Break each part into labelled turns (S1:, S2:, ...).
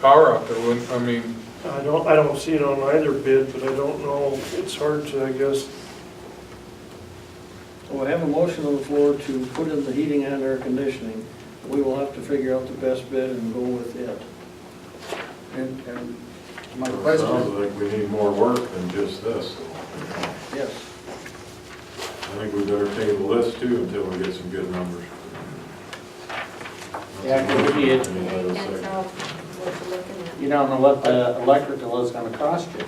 S1: power out there, wouldn't, I mean,
S2: I don't, I don't see it on either bid, but I don't know, it's hard to, I guess,
S3: Well, we have a motion on the floor to put in the heating and air conditioning. We will have to figure out the best bid and go with it.
S4: And, and my
S5: It sounds
S4: question,
S5: like we need more work than just this. so, you know,
S3: Yes.
S5: I think we better table this too until we get some good numbers.
S6: Yeah, 'cause we had-
S5: I mean, that was
S7: That's
S5: like-
S7: all we're looking at.
S6: You don't know what the electrical is gonna cost you.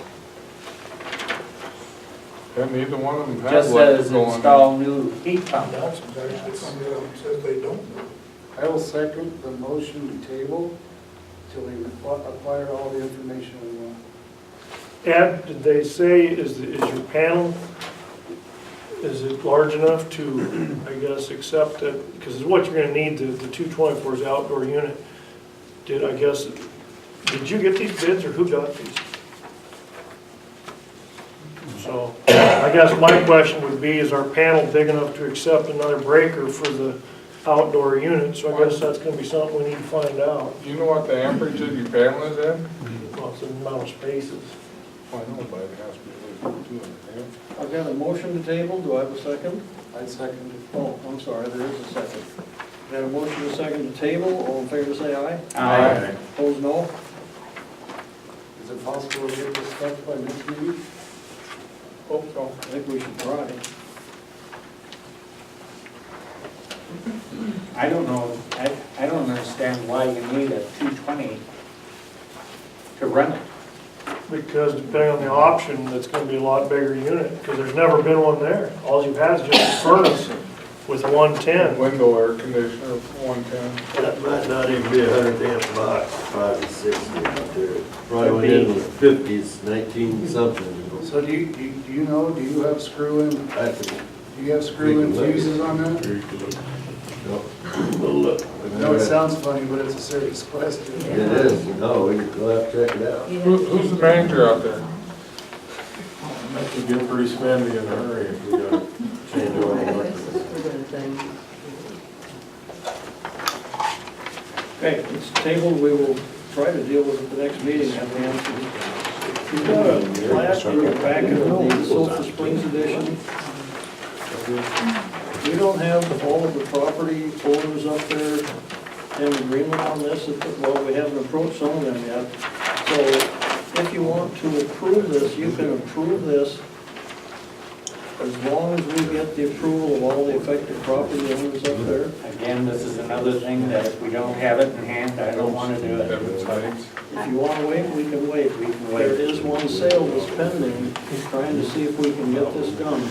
S1: and neither one of them had
S6: Just
S1: what's
S6: says
S1: going.
S6: install new heat pump.
S4: Johnson's actually come down and says they don't know. I will second the motion to table till we acqui- acquire all the information we want.
S2: Ed, did they say, is, is your panel, is it large enough to, I guess, accept that, because it's what you're gonna need, the, the two twenty-fours outdoor unit. Did, I guess, did you get these bids or who got these? So, I guess my question would be, is our panel big enough to accept another breaker for the outdoor unit? So I guess that's gonna be something we need to find out,
S1: Do you know what the amperage of your panel is at?
S2: well, it's the amount of spaces.
S1: I know, but it has to be at least two hundred amps.
S3: I've got a motion to table, do I have a second?
S4: I second it.
S3: Oh, I'm sorry, there is a second. Got a motion to second to table, all in favor say aye.
S6: Aye.
S3: Opposed, no?
S4: Is it possible to get this stuff by next meeting?
S2: Hope so.
S3: I think we should try.
S6: I don't know, I, I don't understand why you need a two twenty to run it.
S2: Because depending on the option, that's gonna be a lot bigger unit, because there's never been one there. All you've had is just a furnace with one ten.
S1: Window air conditioner, one ten.
S8: That might not even be a hundred amp box, five to six amp there.
S4: Right.
S8: Probably in the fifties, nineteen something.
S4: So do you, do you- do you know, do you have screw in, do
S8: I can-
S4: you have screw in
S8: We can look.
S4: fuses on that?
S8: no, we'll look.
S4: No, it sounds funny, but it's a serious question.
S8: It is, no, we can go out and check it out.
S1: Who, who's the manager out there?
S5: That could get pretty spendy in a hurry if we gotta change all the electrical.
S3: Okay, it's tabled, we will try to deal with it the next meeting, have the answer. You've got a last your packet of the Sulphur Springs edition. We don't have all of the property owners up there in agreement on this, well, we haven't approached some of them yet. So if you want to approve this, you can approve this as long as we get the approval of all the affected property owners up there.
S6: Again, this is another thing that if we don't have it in hand, I don't wanna do it.
S1: Evan Sides.
S3: If you want to wait, we can wait. We can wait. There is one sale that's pending, He's trying to see if we can get this done.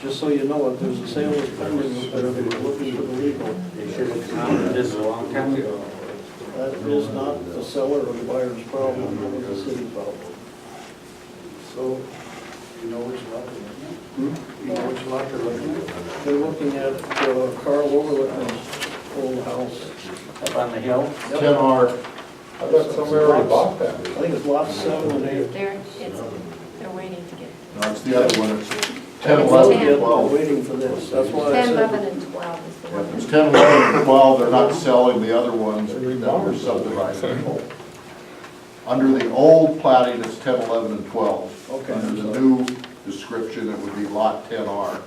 S3: Just so you know it, there's a sale that's pending up there, they were looking for the legal.
S6: They should have counted this a long time ago.
S3: That is not the seller or the buyer's problem, that is the city problem.
S4: So, you know which lot they're looking at? You know which lot they're looking at?
S3: They're looking at uh, Carl Overlook's old house.
S6: Up on the hill,
S3: Yep.
S1: R. I thought somebody already bought that.
S3: I think it's lot seven and eight.
S7: They're, it's, they're waiting to get,
S9: No, it's the other one, it's ten, eleven, and
S3: We're
S9: twelve.
S3: waiting for this, that's why I
S7: ten, eleven,
S3: said,
S7: and twelve is the
S9: Yeah, There's
S7: one.
S9: ten, eleven, and twelve, they're not selling the other ones that were subdivided. Under the old plating, it's ten, eleven, and twelve.
S3: Okay.
S9: Under the new description, it would be lot ten R.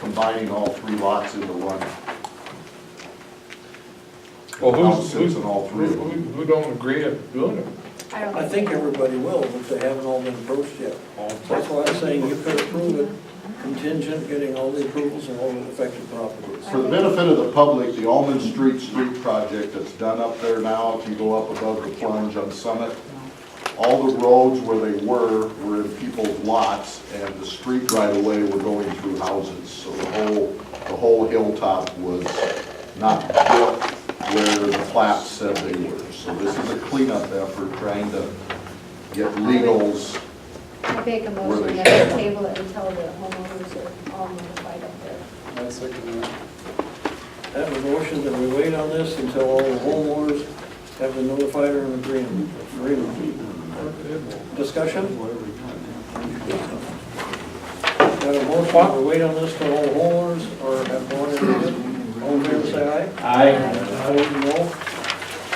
S9: Combining all three lots into one.
S1: Well, who's,
S9: House
S1: who's,
S9: sits in all
S1: who,
S9: three of them.
S1: who who don't agree at doing it?
S7: don't
S3: I think everybody will, but they haven't all been approached yet. That's why I'm saying you could approve it contingent, getting all the approvals and all the affected properties.
S9: For the benefit of the public, the Almond Street Street project that's done up there now, if you go up above the plunge on Summit, all the roads where they were, were in people's lots, and the street right away were going through houses. So the whole, the whole hilltop was not built where the plat said they were. So this is a cleanup effort, trying to get legals
S7: I make a motion that we table it until the homeowners are all notified of their
S4: I second that.
S3: I Have a motion that we wait on this until all the homeowners have been notified or in agreement. agreement. Discussion? Got a motion, that we wait on this till all the homeowners are have gone in agreement. All in favor, say aye.
S6: I,
S3: Opposed, no.